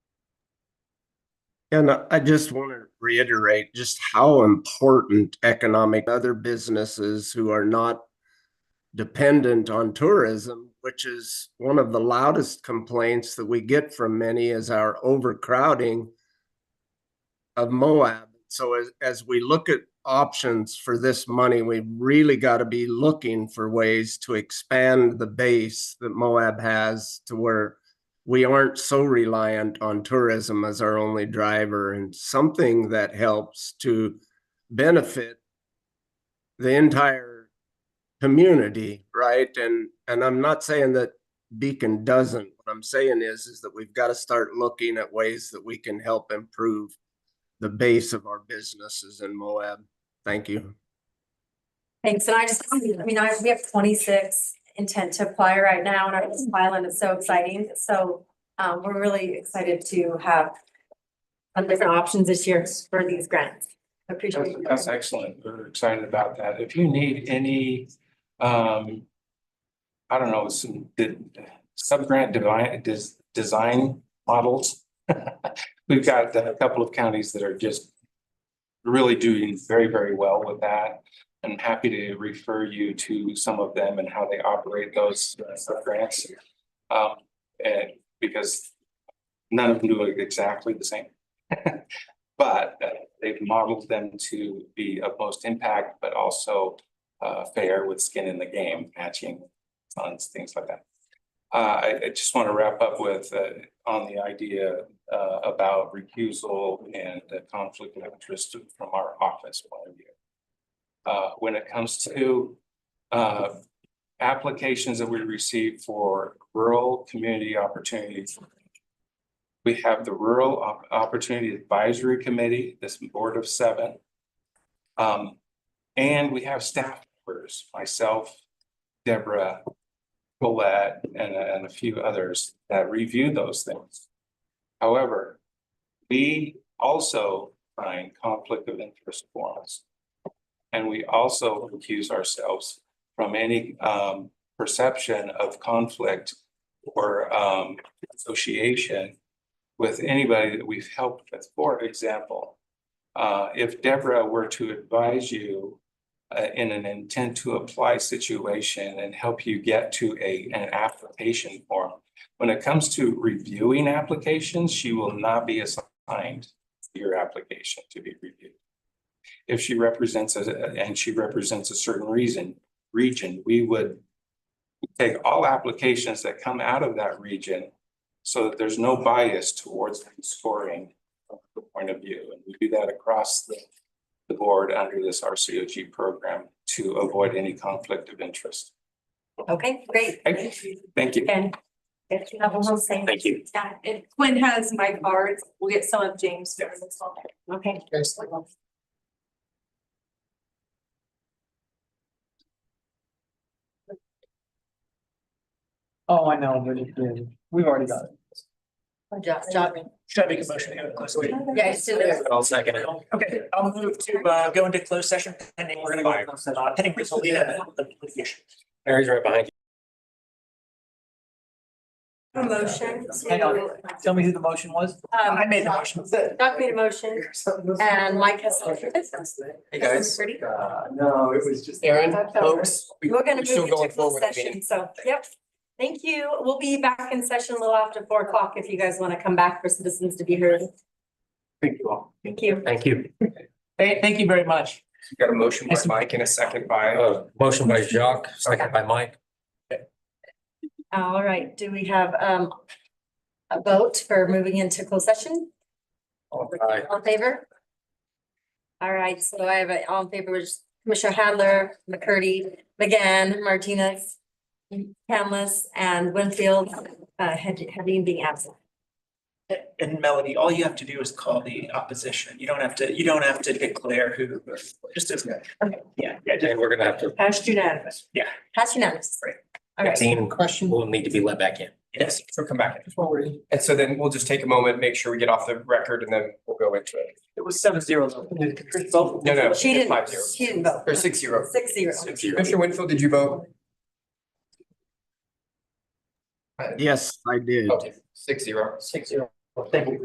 And I- I just want to reiterate just how important economic other businesses who are not dependent on tourism, which is one of the loudest complaints that we get from many is our overcrowding of Moab. So as, as we look at options for this money, we really got to be looking for ways to expand the base that Moab has to where we aren't so reliant on tourism as our only driver and something that helps to benefit the entire community, right? And, and I'm not saying that Beacon doesn't. What I'm saying is, is that we've got to start looking at ways that we can help improve the base of our businesses in Moab. Thank you. Thanks, and I just, I mean, I, we have twenty-six intent to apply right now, and our island is so exciting, so, um, we're really excited to have some different options this year for these grants. Appreciate That's, it. that's excellent. We're excited about that. If you need any, um, I don't know, some, the sub-grant divine, des- design models. We've got a couple of counties that are just really doing very, very well with that. I'm happy to refer you to some of them and how they operate those uh, sub-grants. Um, and because none of them do it exactly the same. But uh, they've modeled them to be of most impact, but also uh, fair with skin in the game, matching funds, things like that. Uh, I, I just want to wrap up with, uh, on the idea, uh, about recusal and the conflict of interest from our office point of view. Uh, when it comes to, uh, applications that we receive for rural community opportunities. We have the Rural Op- Opportunity Advisory Committee, this board of seven. Um, and we have staff members, myself, Deborah, Colette, and, and a few others that review those things. However, we also find conflict of interest forms. And we also accuse ourselves from any um perception of conflict or um association with anybody that we've helped with. For example, uh if Deborah were to advise you uh, in an intent to apply situation and help you get to a an application form. When it comes to reviewing applications, she will not be assigned your application to be reviewed. If she represents a, and she represents a certain reason, region, we would take all applications that come out of that region so that there's no bias towards scoring from the point of view. And we do that across the, the board under this RCOG program to avoid any conflict of interest. Okay, great. Thank Thank you. And if you have a little saying. Thank you. Yeah, And Quinn has my cards. We'll get some of James' cards as well. okay. Oh, I know, but it did. We've already got it. Good job, job. Should I make a motion to go to closed session? Yeah, just do this. I'll second it. Okay, I'll move to uh go into closed session pending. We're gonna go into closed session. Pending resulting in litigation. Mary's right behind you. Motion Hang on. to. Tell me who the motion was? I made the motion. Doc made a motion, Um, and Mike has. Hey, guys. Pretty. Uh, no, it was just. Aaron, folks, we- We're gonna we're still move into going closed forward. session, so, yep. Thank you. We'll be back in session a little after four o'clock if you guys want to come back for citizens to be heard. Thank you all. Thank you. Thank you. Hey, thank you very much. Got a motion by Mike and a second by. uh, Motion by Jacques, second by Mike. All right, do we have um a vote for moving into closed session? Aye. All in favor? All right, so I have a all in favor, which is Commissioner Hadler, McCurdy, McGann, Martinez, Hamlis, and Winfield, uh, had- having being absent. And Melody, all you have to do is call the opposition. You don't have to, you don't have to declare who, just as. Yeah, yeah, just And we're gonna have to, Passed unanimous. Yeah. Passed unanimous. Right. All right. Dean Question? will need to be let back in. yes, So come back. Before we, And so then we'll just take a moment, make sure we get off the record and then we'll go into it. it was seven zeros. No, No, no. She didn't, Five zero. she didn't vote. Or six zero. Six zero. Commissioner Winfield, did you vote? Yes, I did. Okay, six zero. Six zero. Thank you.